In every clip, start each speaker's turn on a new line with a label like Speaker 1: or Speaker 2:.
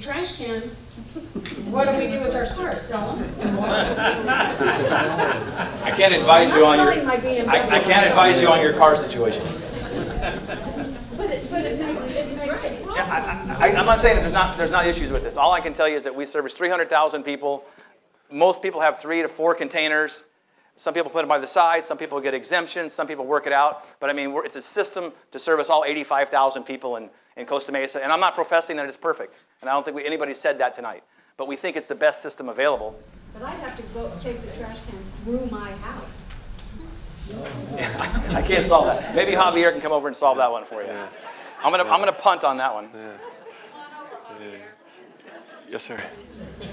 Speaker 1: trash cans, what do we do with our cars? Sell them?
Speaker 2: I can't advise you on your,
Speaker 1: Selling my BMW.
Speaker 2: I, I can't advise you on your car situation.
Speaker 1: But it, but it makes, it makes it
Speaker 2: Yeah, I, I, I- I'm not saying that there's not, there's not issues with this. All I can tell you is that we service 300,000 people. Most people have three to four containers. Some people put them by the side, some people get exemptions, some people work it out. But I mean, we're, it's a system to service all 85,000 people in, in Costa Mesa. And I'm not professing that it's perfect. And I don't think we, anybody said that tonight. But we think it's the best system available.
Speaker 1: But I'd have to go take the trash can through my house.
Speaker 2: I can't solve that. Maybe Javier can come over and solve that one for you. I'm gonna, I'm gonna punt on that one.
Speaker 3: Yes, sir.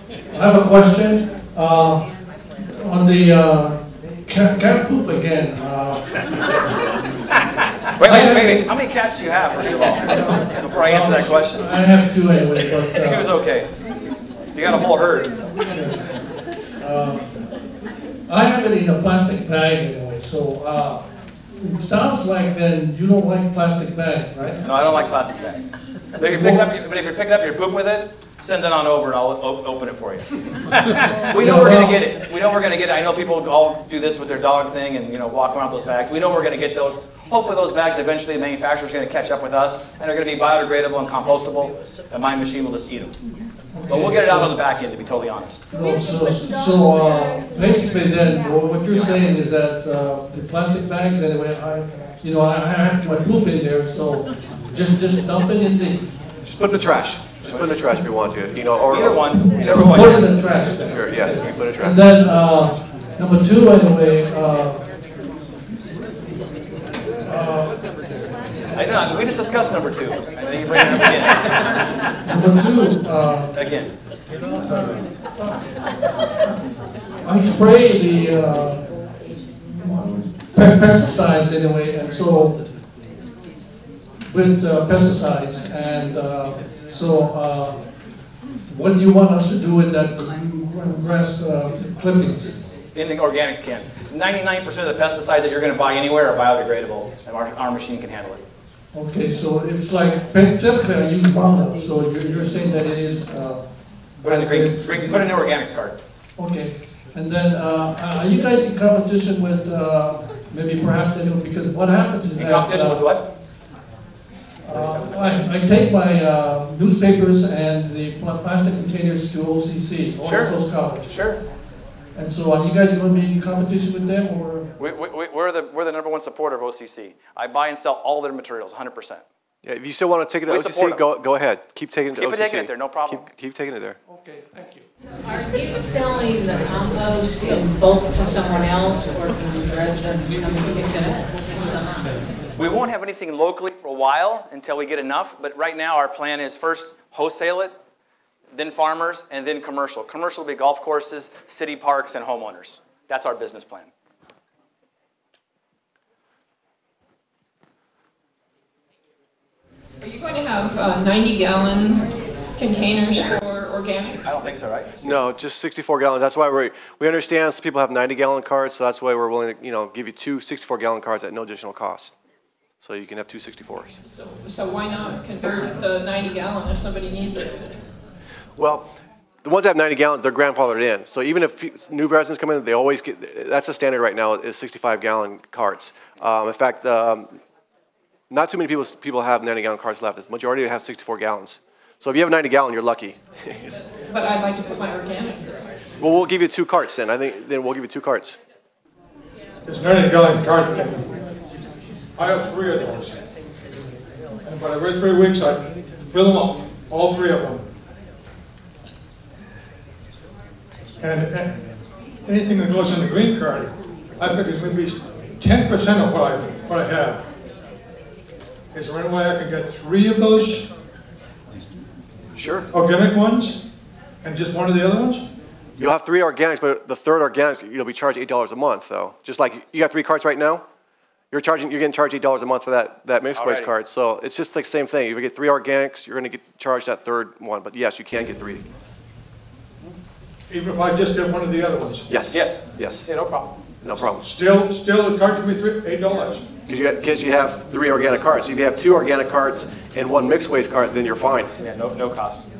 Speaker 4: I have a question, uh, on the, uh, cat, cat poop again, uh.
Speaker 2: Wait, wait, wait, wait. How many cats do you have, first of all? Before I answer that question.
Speaker 4: I have two anyway, but,
Speaker 2: Two is
Speaker 4: uh,
Speaker 2: okay. You got a whole herd.
Speaker 4: I have it in a plastic bag anyway, so, uh, it sounds like then you don't like plastic bags, right?
Speaker 2: No, I don't like plastic bags. But if you're picking up, but if you're picking up your poop with it, send it on over and I'll o- open it for you. We know we're gonna get it. We know we're gonna get it. I know people all do this with their dog thing and, you know, walk around with those bags. We know we're gonna get those. Hopefully those bags eventually the manufacturer's gonna catch up with us and they're gonna be biodegradable and compostable and my machine will just eat them. But we'll get it out on the back end, to be totally honest.
Speaker 4: No, So, so, uh, basically then, wha- what you're saying is that, uh, the plastic bags anyway, I, you know, I I have my poop in there, so just, just dump it in the,
Speaker 3: Just put it in the trash. Just put it in the trash if you want to, you know, or.
Speaker 2: Either one, whichever
Speaker 4: put it
Speaker 2: one.
Speaker 4: in the trash then.
Speaker 3: Sure, yes, you can put it in the
Speaker 4: And
Speaker 3: trash.
Speaker 4: then, uh, number two, anyway, uh,
Speaker 2: I know, we just discussed number two. And then you bring it up
Speaker 4: number two, uh,
Speaker 2: again, again.
Speaker 4: I spray the, uh, pe- pesticides anyway, and so, with uh, pesticides, and, uh, so, uh, what do you want us to do with that grass uh, clippings?
Speaker 2: in the organics can. 99% of the pesticides that you're going to buy anywhere are biodegradable, and our, our machine can handle it.
Speaker 4: Okay, so it's like, typically I use vinyl, so you're, you're saying that it is, uh.
Speaker 2: Put in the green, green- put in the organics card.
Speaker 4: Okay, and then, uh, are you guys in competition with, uh, maybe perhaps anyone, because what happens is
Speaker 2: In
Speaker 4: that.
Speaker 2: competition with
Speaker 4: uh,
Speaker 2: what?
Speaker 4: uh, I, I take my uh, newspapers and the pla- plastic containers to OCC,
Speaker 2: Sure.
Speaker 4: Orange Coast College.
Speaker 2: Sure.
Speaker 4: And so are you guys gonna be in competition with them, or?
Speaker 2: We, we, we- we're the, we're the number one supporter of OCC. I buy and sell all their materials, 100%.
Speaker 3: Yeah, if you still want to take it
Speaker 2: We
Speaker 3: to
Speaker 2: support
Speaker 3: OCC,
Speaker 2: 'em.
Speaker 3: go, go ahead. Keep taking it to
Speaker 2: Keep
Speaker 3: OCC.
Speaker 2: it taking it there, no problem.
Speaker 3: Keep, keep taking it there.
Speaker 4: Okay, thank you.
Speaker 5: Are you selling the compost in bulk to someone else or can the residents come and pick it up?
Speaker 2: We won't have anything locally for a while until we get enough, but right now our plan is first wholesale it, then farmers, and then commercial. Commercial will be golf courses, city parks, and homeowners. That's our business plan.
Speaker 6: Are you going to have 90-gallon containers for organics?
Speaker 2: I don't think so, right?
Speaker 3: No, just 64 gallons. That's why we we understand some people have 90 gallon carts, so that's why we're willing to, you know, give you two 64 gallon carts at no additional cost. So you can have two 64s.
Speaker 6: So so why not convert the 90-gallon if somebody needs it?
Speaker 3: Well, the ones that have 90 gallons, they're grandfathered in. So even if pe- new residents come in, they always get, that's the standard right now, is 65 gallon carts. Um, in fact, um, not too many people, people have 90 gallon carts left. The majority have 64 gallons. So if you have a 90 gallon, you're lucky.
Speaker 6: But I'd like to put my organics in.
Speaker 3: Well, we'll give you two carts then. I think, then we'll give you two carts.
Speaker 7: It's not a gallon cart. I have three of those. And but every three weeks, I fill them up, all three of them. And and anything that goes in the green card, I figure is maybe ten percent of what I, what I have. Is there any way I can get three of those
Speaker 3: Sure.
Speaker 7: organic ones and just one of the other ones?
Speaker 3: You'll have three organics, but the third organic, you'll be charged eight dollars a month, though. Just like you got three carts right now, you're charging, you're getting charged eight dollars a month for that that mixed waste
Speaker 2: Alrighty.
Speaker 3: card. So it's just like same thing. If you get three organics, you're going to get charged that third one. But yes, you can get three.
Speaker 7: Even if I just get one of the other ones?
Speaker 3: Yes.
Speaker 2: Yes.
Speaker 3: Yes.
Speaker 2: Yeah, no problem.
Speaker 3: No problem.
Speaker 7: Still, still, the cart can be three, eight dollars.
Speaker 3: Because you, got- 'cause you have three organic carts. If you have two organic carts and one mixed waste cart, then you're fine.
Speaker 2: Yeah, no, no cost.